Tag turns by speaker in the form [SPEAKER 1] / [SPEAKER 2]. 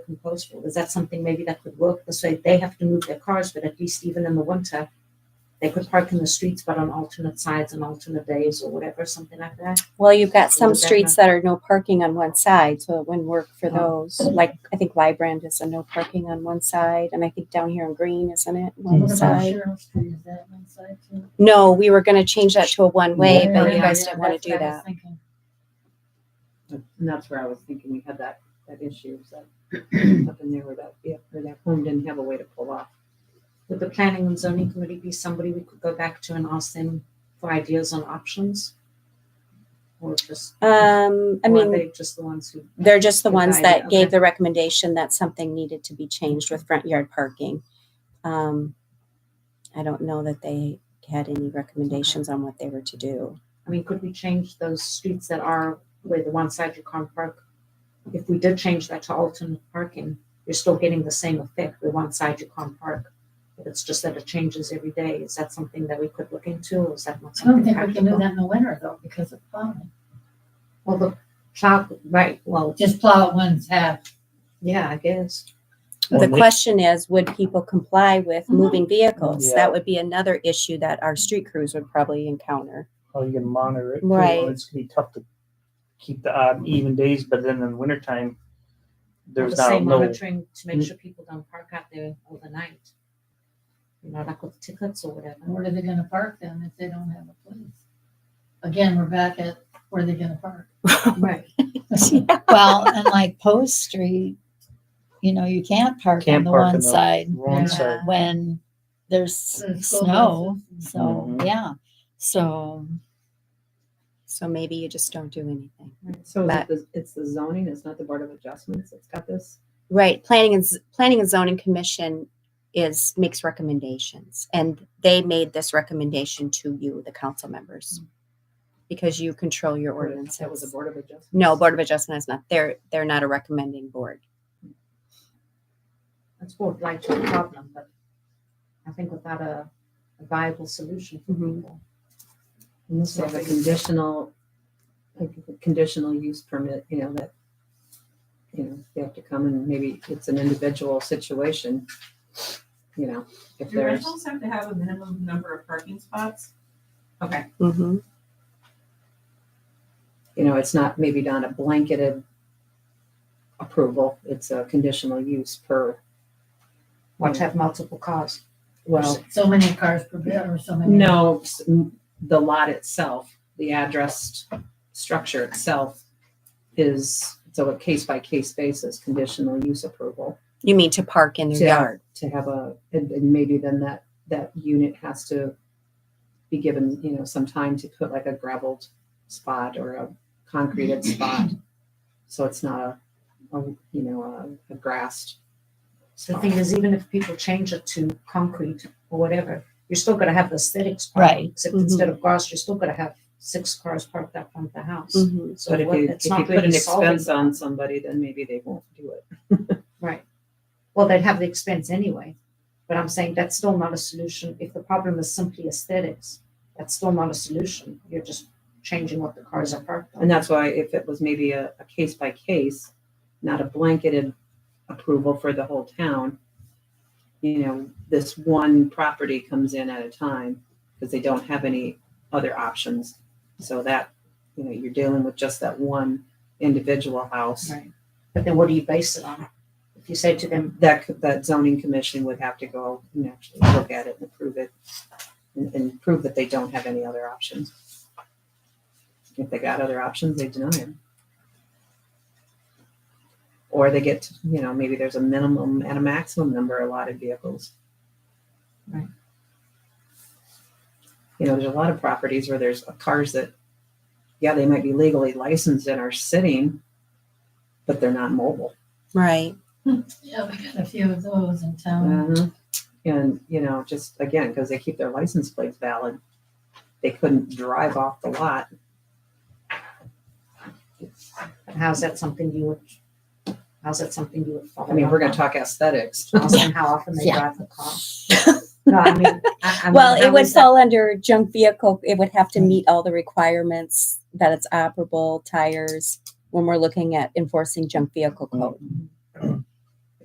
[SPEAKER 1] compostable. Is that something maybe that could work? This way they have to move their cars, but at least even in the winter, they could park in the streets, but on alternate sides and alternate days or whatever, something like that.
[SPEAKER 2] Well, you've got
[SPEAKER 1] Or
[SPEAKER 2] some
[SPEAKER 1] is that
[SPEAKER 2] streets that are no parking on one side, so it wouldn't work for
[SPEAKER 1] Oh.
[SPEAKER 2] those. Like, I think Lybrand is a no parking on one side, and I think down here in Green, isn't it? One
[SPEAKER 3] What about
[SPEAKER 2] side.
[SPEAKER 3] Cheryl Street, is that one side too?
[SPEAKER 2] No, we were gonna change that to a one way,
[SPEAKER 3] Yeah,
[SPEAKER 2] but you
[SPEAKER 3] yeah,
[SPEAKER 2] guys
[SPEAKER 3] yeah,
[SPEAKER 2] didn't wanna
[SPEAKER 3] that's
[SPEAKER 2] do
[SPEAKER 3] what I was
[SPEAKER 2] that.
[SPEAKER 3] thinking.
[SPEAKER 4] And that's where I was thinking we had that, that issue, so up in there where that, yeah, where that home didn't have a way to pull off.
[SPEAKER 1] Would the planning and zoning committee be somebody we could go back to and ask them for ideas on options? Or just,
[SPEAKER 2] Um, I
[SPEAKER 1] or are
[SPEAKER 2] mean,
[SPEAKER 1] they just the ones who,
[SPEAKER 2] they're just the
[SPEAKER 1] Good
[SPEAKER 2] ones
[SPEAKER 1] idea,
[SPEAKER 2] that
[SPEAKER 1] okay.
[SPEAKER 2] gave the recommendation that something needed to be changed with front yard parking. Um, I don't know that they had any recommendations on what they were to do.
[SPEAKER 1] I mean, could we change those streets that are where the one side you can't park? If we did change that to alternate parking, you're still getting the same effect, where one side you can't park. But it's just that it changes every day. Is that something that we could look into or is that not
[SPEAKER 3] I don't
[SPEAKER 1] something
[SPEAKER 3] think we can do
[SPEAKER 1] practical?
[SPEAKER 3] that in the winter though, because of plowing.
[SPEAKER 1] Well, the plow, right, well,
[SPEAKER 3] Just plow one's half.
[SPEAKER 1] yeah, I guess.
[SPEAKER 2] The question is, would people comply with
[SPEAKER 3] Mhm.
[SPEAKER 2] moving vehicles?
[SPEAKER 5] Yeah.
[SPEAKER 2] That would be another issue that our street crews would probably encounter.
[SPEAKER 5] How you can monitor it. too.
[SPEAKER 2] Right.
[SPEAKER 5] It's gonna be tough to keep the odd even days, but then in wintertime, there's
[SPEAKER 1] the
[SPEAKER 5] not Mm.
[SPEAKER 1] same
[SPEAKER 5] no.
[SPEAKER 1] monitoring to make sure people don't park out there overnight. You know, like with tickets or whatever.
[SPEAKER 3] Where are they gonna park them if they don't have a place? Again, we're back at where they gonna park.
[SPEAKER 1] Right.
[SPEAKER 6] Well, and like Post Street, you know, you can't park on
[SPEAKER 5] Can't
[SPEAKER 6] the
[SPEAKER 5] park
[SPEAKER 6] one
[SPEAKER 5] on the
[SPEAKER 6] side
[SPEAKER 5] Wrong
[SPEAKER 3] Yeah.
[SPEAKER 5] side.
[SPEAKER 6] when there's
[SPEAKER 3] There's school
[SPEAKER 6] snow.
[SPEAKER 3] buses.
[SPEAKER 6] So,
[SPEAKER 5] Mhm.
[SPEAKER 6] yeah. So,
[SPEAKER 2] So maybe you just don't do anything.
[SPEAKER 4] So is
[SPEAKER 2] But-
[SPEAKER 4] it the- it's the zoning, it's not the Board of Adjustments that's got this?
[SPEAKER 2] Right, planning and, Z- planning and zoning commission is, makes recommendations. And they made this recommendation to you, the council members. Because you control your
[SPEAKER 4] Or That was the
[SPEAKER 2] ordinances.
[SPEAKER 4] Board of Adjustments?
[SPEAKER 2] No, Board of Adjustment is not, they're, they're not a recommending board.
[SPEAKER 1] That's what like to the problem, but I think without a a viable solution for
[SPEAKER 2] Mhm.
[SPEAKER 1] people.
[SPEAKER 4] And this is a conditional, like a conditional use permit, you know, that, you know, you have to come and maybe it's an individual situation. You know, if
[SPEAKER 7] Do
[SPEAKER 4] there's,
[SPEAKER 7] rentals have to have a minimum number of parking spots? Okay,
[SPEAKER 2] Mm-hmm.
[SPEAKER 4] you know, it's not, maybe not a blanketed approval, it's a conditional use per,
[SPEAKER 1] Or to have multiple cars.
[SPEAKER 4] well,
[SPEAKER 3] So many cars per bit or so many.
[SPEAKER 4] No, s- m- the lot itself, the addressed structure itself is, so a case by case basis, conditional use approval
[SPEAKER 2] You mean to park in their
[SPEAKER 4] Yeah.
[SPEAKER 2] yard?
[SPEAKER 4] to have a, and, and maybe then that, that unit has to be given, you know, some time to put like a gravelled spot or a concreted spot. So it's not a, a, you know, a, a grassed.
[SPEAKER 1] So the thing is, even if people change it to concrete or whatever, you're still gonna have the aesthetics. problem,
[SPEAKER 6] Right.
[SPEAKER 1] Except
[SPEAKER 2] Mhm.
[SPEAKER 1] instead of cars, you're still gonna have six cars parked up front the house.
[SPEAKER 2] Mhm.
[SPEAKER 1] So
[SPEAKER 4] But if
[SPEAKER 1] what-
[SPEAKER 4] you, if
[SPEAKER 1] it's
[SPEAKER 4] you
[SPEAKER 1] not
[SPEAKER 4] put
[SPEAKER 1] really
[SPEAKER 4] an
[SPEAKER 1] solving
[SPEAKER 4] expense
[SPEAKER 1] the
[SPEAKER 4] on
[SPEAKER 1] problem.
[SPEAKER 4] somebody, then maybe they won't do it.
[SPEAKER 1] Right. Well, they'd have the expense anyway, but I'm saying that's still not a solution. If the problem is simply aesthetics, that's still not a solution. You're just changing what the cars are parked on.
[SPEAKER 4] And that's why if it was maybe a, a case by case, not a blanketed approval for the whole town, you know, this one property comes in at a time because they don't have any other options. So that, you know, you're dealing with just that one individual house.
[SPEAKER 1] Right. But then what do you base it on? If you say to them,
[SPEAKER 4] That, c- that zoning commission would have to go and actually look at it and approve it and, and prove that they don't have any other options. If they got other options, they deny them. Or they get, to, you know, maybe there's a minimum and a maximum number of allotted vehicles.
[SPEAKER 1] Right.
[SPEAKER 4] You know, there's a lot of properties where there's cars that, yeah, they might be legally licensed and are sitting, but they're not mobile.
[SPEAKER 2] Right.
[SPEAKER 3] Yeah, we got a few of those in town.
[SPEAKER 4] Mhm. And, you know, just again, because they keep their license plates valid, they couldn't drive off the lot.
[SPEAKER 1] how's that something you would, how's that something you would follow?
[SPEAKER 4] I mean, we're gonna
[SPEAKER 1] up
[SPEAKER 4] talk aesthetics.
[SPEAKER 1] on? Ask them how often they
[SPEAKER 6] Yeah.
[SPEAKER 1] drive the car. No, I mean, I, I mean,
[SPEAKER 2] Well, it
[SPEAKER 1] how
[SPEAKER 2] would
[SPEAKER 1] is that- Mm.
[SPEAKER 2] fall under junk vehicle. It would have to meet all the
[SPEAKER 1] Mm.
[SPEAKER 2] requirements that it's operable, tires, when we're looking at enforcing junk vehicle code.